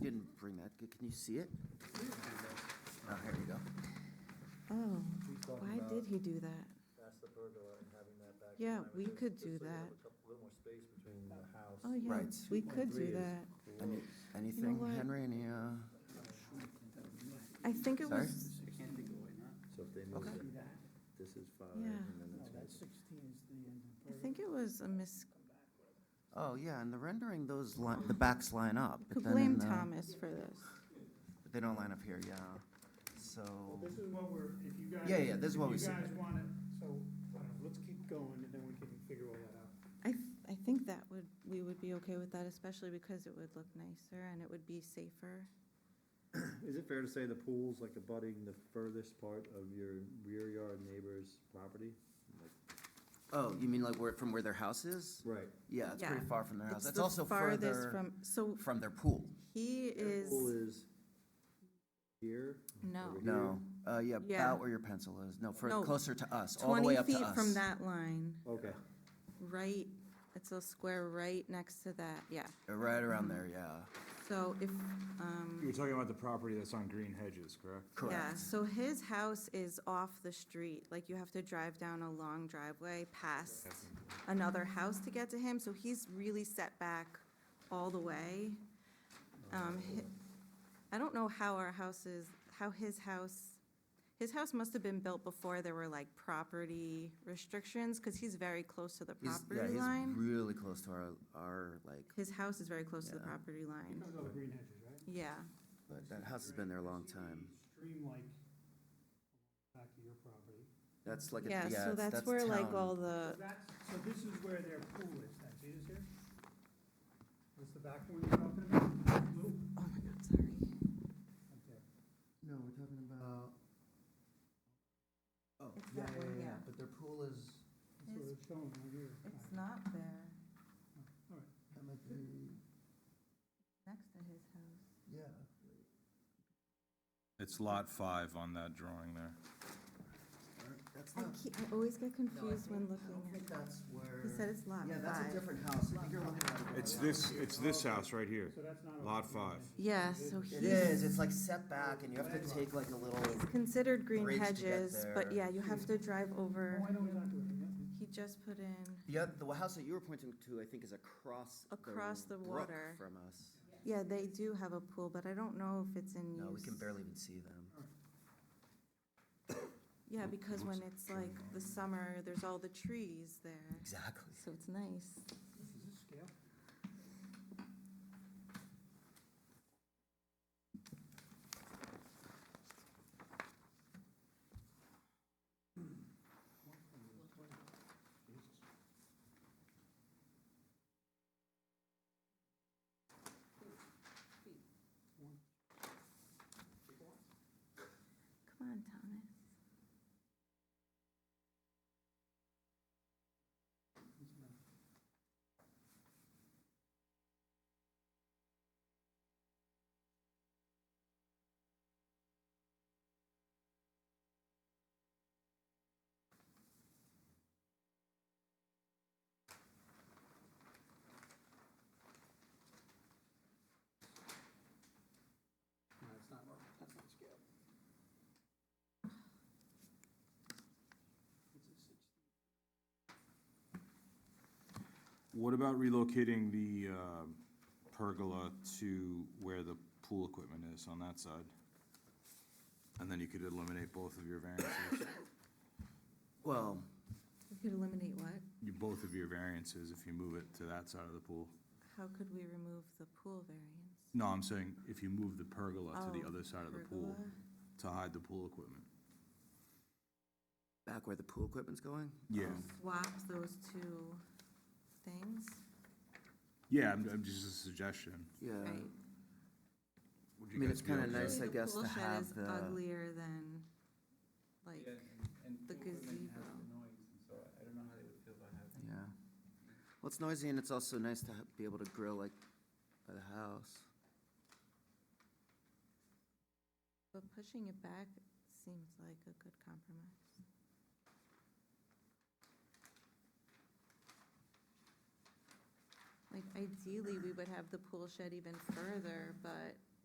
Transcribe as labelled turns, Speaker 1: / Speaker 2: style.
Speaker 1: C- Can you see it? Oh, here you go.
Speaker 2: Oh,
Speaker 3: We talked
Speaker 2: why
Speaker 3: about-
Speaker 2: did he do that?
Speaker 3: That's the pergola and having that back. in
Speaker 2: Yeah,
Speaker 3: line with
Speaker 2: we
Speaker 3: this,
Speaker 2: could
Speaker 3: just
Speaker 2: do
Speaker 3: so you have
Speaker 2: that.
Speaker 3: a couple- little more space between the house.
Speaker 2: Oh, yeah,
Speaker 1: Right.
Speaker 2: we could
Speaker 3: 2.3
Speaker 2: do
Speaker 3: is-
Speaker 2: that.
Speaker 3: the
Speaker 1: Any,
Speaker 3: wall.
Speaker 1: anything,
Speaker 2: what?
Speaker 1: Henry, any, uh,
Speaker 2: I think it
Speaker 1: Sorry?
Speaker 2: was,
Speaker 4: Can't take away now.
Speaker 3: So if they move
Speaker 1: Okay.
Speaker 3: that, this is five,
Speaker 2: Yeah.
Speaker 3: and then
Speaker 5: No, that
Speaker 3: that's.
Speaker 5: sixteen is the end of
Speaker 2: I
Speaker 5: Bergen.
Speaker 2: think it was a mis,
Speaker 1: oh, yeah, in the rendering, those li, the backs line up. but
Speaker 2: could
Speaker 1: then in
Speaker 2: blame
Speaker 1: the- uh,
Speaker 2: Thomas for this.
Speaker 1: But they don't line up here, yeah. So,
Speaker 5: This is what we're, if you guys.
Speaker 1: Yeah, yeah, this is
Speaker 5: if
Speaker 1: what we
Speaker 5: You guys
Speaker 1: submitted.
Speaker 5: want it, so, I don't know, let's keep going and then we can figure all that out.
Speaker 2: I, th- I think that would, we would be okay with that, especially because it would look nicer and it would be safer.
Speaker 3: Is it fair to say the pool's like abutting the furthest part of your rear yard neighbor's property?
Speaker 1: oh, you mean like where, from where their house is?
Speaker 3: Right.
Speaker 1: Yeah, it's
Speaker 2: Yeah.
Speaker 1: pretty far from their house.
Speaker 2: It's
Speaker 1: That's
Speaker 2: the
Speaker 1: also
Speaker 2: farthest
Speaker 1: further
Speaker 2: from. So
Speaker 1: from their pool.
Speaker 2: he
Speaker 3: Their
Speaker 2: is,
Speaker 3: Pool is here?
Speaker 2: no,
Speaker 3: over here?
Speaker 1: No, uh, yeah,
Speaker 2: Yeah.
Speaker 1: about where your pencil is. No, fur-
Speaker 2: No,
Speaker 1: closer to us, all the
Speaker 2: twenty
Speaker 1: way up to us.
Speaker 2: feet from that line,
Speaker 3: Okay,
Speaker 2: right, it's a square right next to that, yeah.
Speaker 1: Uh, Right around there, yeah.
Speaker 2: So if, um.
Speaker 6: You were talking about the property that's on Green Hedges, correct?
Speaker 2: Yeah,
Speaker 1: Correct.
Speaker 2: so his house is off the street, like you have to drive down a long driveway past another house to get to him, so he's really set back all the way. Um, hi- I don't know how our house is, how his house, his house must have been built before there were like property restrictions, because he's very close to the
Speaker 1: He's, yeah,
Speaker 2: property
Speaker 1: he's
Speaker 2: line.
Speaker 1: really close to our, our, like,
Speaker 2: His house is very close to the
Speaker 1: Yeah.
Speaker 2: property line,
Speaker 5: Comes out of Green Hedges, right?
Speaker 2: yeah.
Speaker 1: but that house has been there a long time.
Speaker 5: Stream-like back to your property.
Speaker 1: That's like, a- yeah,
Speaker 2: Yeah, so
Speaker 1: it's-
Speaker 2: that's
Speaker 1: that's
Speaker 2: where like all
Speaker 1: town.
Speaker 2: the,
Speaker 5: That's, so this is where their pool is, then, see this here? What's the back one you're talking about? Blue?
Speaker 2: oh my God, sorry.
Speaker 5: Up there.
Speaker 1: No, we're talking about. Oh,
Speaker 2: It's that one, yeah.
Speaker 1: but their pool is,
Speaker 5: That's what it's showing right here.
Speaker 2: It's not there.
Speaker 5: All right.
Speaker 1: that might be,
Speaker 2: Next to his house.
Speaker 1: yeah.
Speaker 6: It's lot five on that drawing there.
Speaker 1: That's
Speaker 2: I
Speaker 1: not,
Speaker 2: keep, I always get
Speaker 1: no, I
Speaker 2: confused when
Speaker 1: think, I
Speaker 2: looking
Speaker 1: don't think
Speaker 2: at,
Speaker 1: that's where.
Speaker 2: he said it's lot
Speaker 1: Yeah, that's a
Speaker 2: five.
Speaker 1: different house. I think you're looking at. a
Speaker 6: It's
Speaker 1: different
Speaker 6: this, it's this house right here.
Speaker 5: So that's not. on
Speaker 6: Lot
Speaker 5: Green
Speaker 6: five.
Speaker 5: Hedges.
Speaker 2: Yeah, so
Speaker 5: It
Speaker 1: house.
Speaker 2: he-
Speaker 1: It is, it's like set back and you have to take like a little,
Speaker 2: It's considered green
Speaker 1: Bridge to get
Speaker 2: hedges, but
Speaker 1: there.
Speaker 2: yeah, you have to drive
Speaker 5: Oh,
Speaker 2: over,
Speaker 5: I know exactly what you mean.
Speaker 2: he just put in,
Speaker 1: the, oth- the house that you were pointing to, I think is across.
Speaker 2: Across the
Speaker 1: brook
Speaker 2: water.
Speaker 1: From us.
Speaker 2: yeah, they do have a pool, but I don't know if it's in use.
Speaker 1: No, we can barely even see them.
Speaker 2: Yeah, because when it's like the summer, there's all the trees there,
Speaker 1: Exactly.
Speaker 2: so it's nice.
Speaker 5: Is this scale?
Speaker 2: Come on, Thomas.
Speaker 5: No, it's not, that's not scale. It's a six.
Speaker 6: What about relocating the um, pergola to where the pool equipment is on that side? And then you could eliminate both of your variances,
Speaker 1: Well,
Speaker 2: We could eliminate what?
Speaker 6: you, both of your variances if you move it to that side of the pool.
Speaker 2: How could we remove the pool variance?
Speaker 6: No, I'm saying if you move the pergola to the
Speaker 2: Oh,
Speaker 6: other side of the pool
Speaker 2: Pergola?
Speaker 6: to hide the pool equipment.
Speaker 1: back where the pool equipment's going?
Speaker 6: Yeah,
Speaker 1: Um,
Speaker 2: Swap those two things,
Speaker 6: yeah, I'm, I'm just a suggestion.
Speaker 1: Yeah.
Speaker 2: right?
Speaker 6: Would
Speaker 1: I
Speaker 6: you
Speaker 1: mean,
Speaker 6: guys
Speaker 1: it's
Speaker 6: be
Speaker 1: kinda
Speaker 6: okay?
Speaker 1: nice, I
Speaker 2: Actually, the
Speaker 1: guess,
Speaker 2: pool
Speaker 1: to
Speaker 2: shed
Speaker 1: have
Speaker 2: is
Speaker 1: the-
Speaker 2: Uglier than, like, the gazebo.
Speaker 1: Yeah. Well, it's noisy and it's also nice to ha- be able to grill like by the house.
Speaker 2: But pushing it back seems like a good compromise. Like ideally, we would have the pool shed even further, but